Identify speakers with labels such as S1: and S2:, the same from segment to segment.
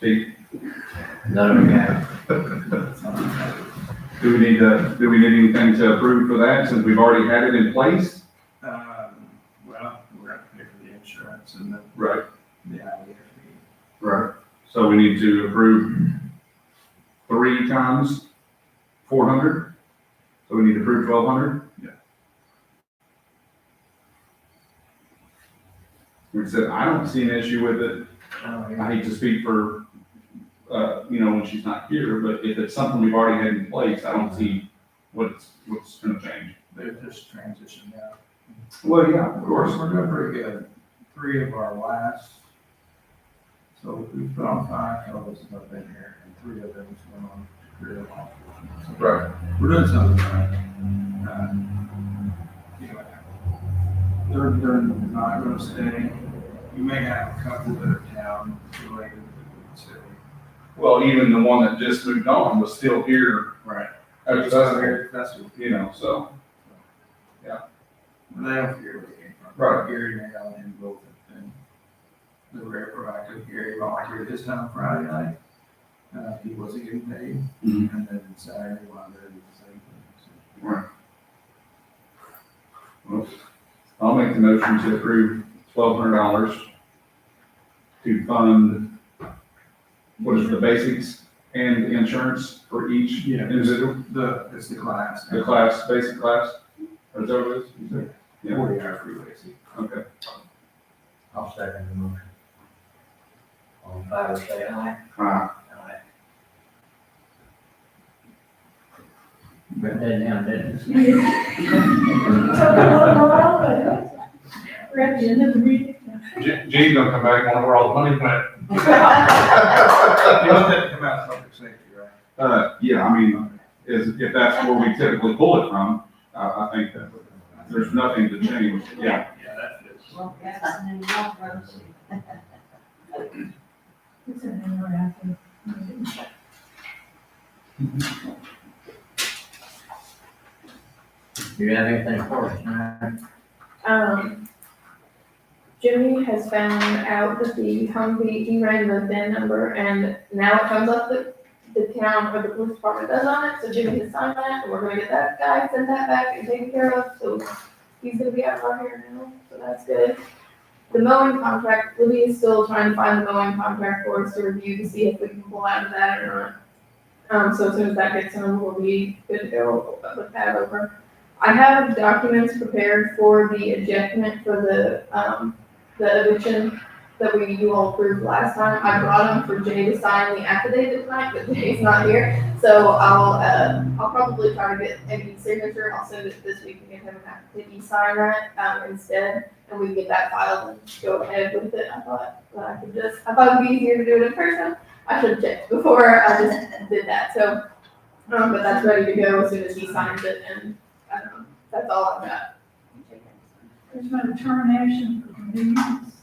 S1: See,
S2: None of them have.
S1: do we need to, do we need anything to approve for that since we've already had it in place?
S3: Um, well, we're gonna pay for the insurance and the,
S1: Right.
S3: the alligator fee.
S1: Right. So we need to approve three times four hundred? So we need to approve twelve hundred?
S3: Yeah.
S1: We said, I don't see an issue with it.
S3: Oh, yeah.
S1: I hate to speak for, uh, you know, when she's not here, but if it's something we've already had in place, I don't see what's, what's gonna change.
S3: They're just transitioning now.
S1: Well, yeah, of
S3: Of course,
S1: course.
S3: we're doing pretty good. Three of our last, so we've put on five fellows that have been here, and three of them went on to career law. So
S1: Right.
S3: We're doing something right. Uh, anyway, They're, they're not gonna stay. You may have a couple that are town related to the city.
S1: Well, even the one that just moved on was still here
S3: Right.
S1: at the festival,
S3: That's what,
S1: you know, so.
S3: they don't care where they came from.
S1: Right.
S3: Gary Nail and both have been. They were very proactive. Gary volunteered this time Friday night. Uh, he wasn't getting paid.
S1: Mhm.
S3: And then Saturday, one day, the same thing.
S1: well, I'll make the motion to approve twelve hundred dollars to fund, what is it, the basics and the insurance for each
S3: Yeah.
S1: individual,
S3: So The, it's the class.
S1: the class, basic class, or is that what it is? You said? Yeah.
S3: Forty hour freeway seat.
S1: Okay,
S2: I'll second the motion. All in favor, say aye.
S1: Aye.
S2: Aye.
S3: But
S2: That down, that is.
S4: We're at the end of the meeting.
S1: Je- Jean's gonna come back and wonder where all the money went.
S3: you know that come out of public safety, right?
S1: Uh, yeah, I mean, is, if that's where we typically pull it from, I, I think that there's nothing to change, yeah.
S3: Yeah, that is.
S5: Well, that's an involved road.
S4: It's an interactive meeting.
S2: You have anything for us tonight?
S5: Um, Jimmy has found out that the Humvee, he ran the VIN number and now it comes up that the town or the police department does on it, so Jimmy has signed that, and we're gonna get that guy, send that back and taken care of, so he's gonna be out of our hair now, so that's good. The mowing contract, Libby is still trying to find the mowing contract for us to review to see if we can pull out of that or not. Um, so as soon as that gets done, we'll be good to go with that over. I have documents prepared for the ejectment for the, um, the eviction that we, you all approved last time. I brought them for Jay to sign the affidavit tonight, but Jay's not here. So I'll, uh, I'll probably try to get Eddie's signature. I'll send it this week and get him an affidavit sign that, um, instead. And we can get that filed and go ahead with it. I thought that I could just, I thought it'd be easier to do it in person. I should have checked before I just did that. So, um, but that's ready to go as soon as he signs it and, I don't know. That's all I've got.
S4: There's no termination for convenience.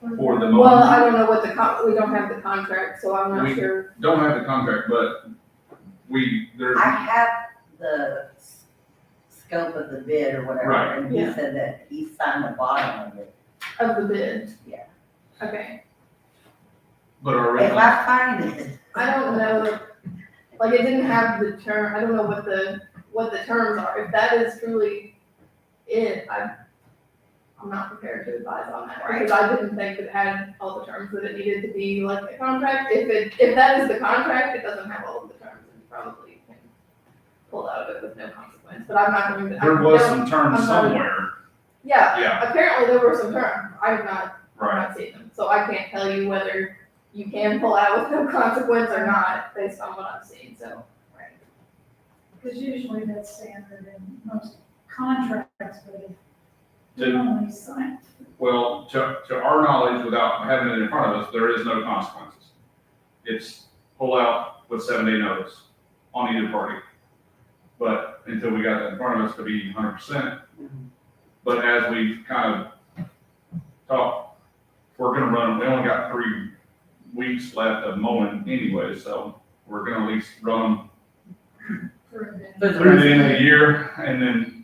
S1: For the
S5: Well,
S1: moment,
S5: I don't know what the con, we don't have the contract, so I'm
S1: We-
S5: not sure.
S1: don't have the contract, but we, there's,
S5: I-
S1: right,
S6: I have the s- scope of the bid or whatever,
S1: Right.
S6: and he
S5: Yeah.
S6: said that he signed the bottom of it.
S5: Of the bid.
S6: Yeah.
S5: Okay,
S1: but our
S6: If
S1: original,
S6: I find it.
S5: I don't know, like, it didn't have the term, I don't know what the, what the terms are, if that is truly it, I, I'm not prepared to advise on that, because I didn't think it had all the terms that it needed to be, like, the contract, if it, if that is the contract, it doesn't have all of the terms, and probably can pull out of it with no consequence, but I'm not going to. I
S1: there was
S5: don't-
S1: some terms
S5: I'm not-
S1: somewhere,
S5: Yeah,
S1: yeah,
S5: Apparently there were some terms, I have not, I've
S1: right.
S5: not seen them, so I can't tell you whether you can pull out with no consequence or not, based on what I've seen, so.
S4: Because usually that's standard in most contracts, but if
S1: Did-
S4: you only sign.
S1: Well, to, to our knowledge, without having it in front of us, there is no consequences. It's pull out with seven day notice on either party. But until we got that in front of us to be hundred percent, but as we kind of talked, we're gonna run, we only got three weeks left of mowing anyway, so we're gonna at least run
S4: for a bid.
S1: through the end of the year and then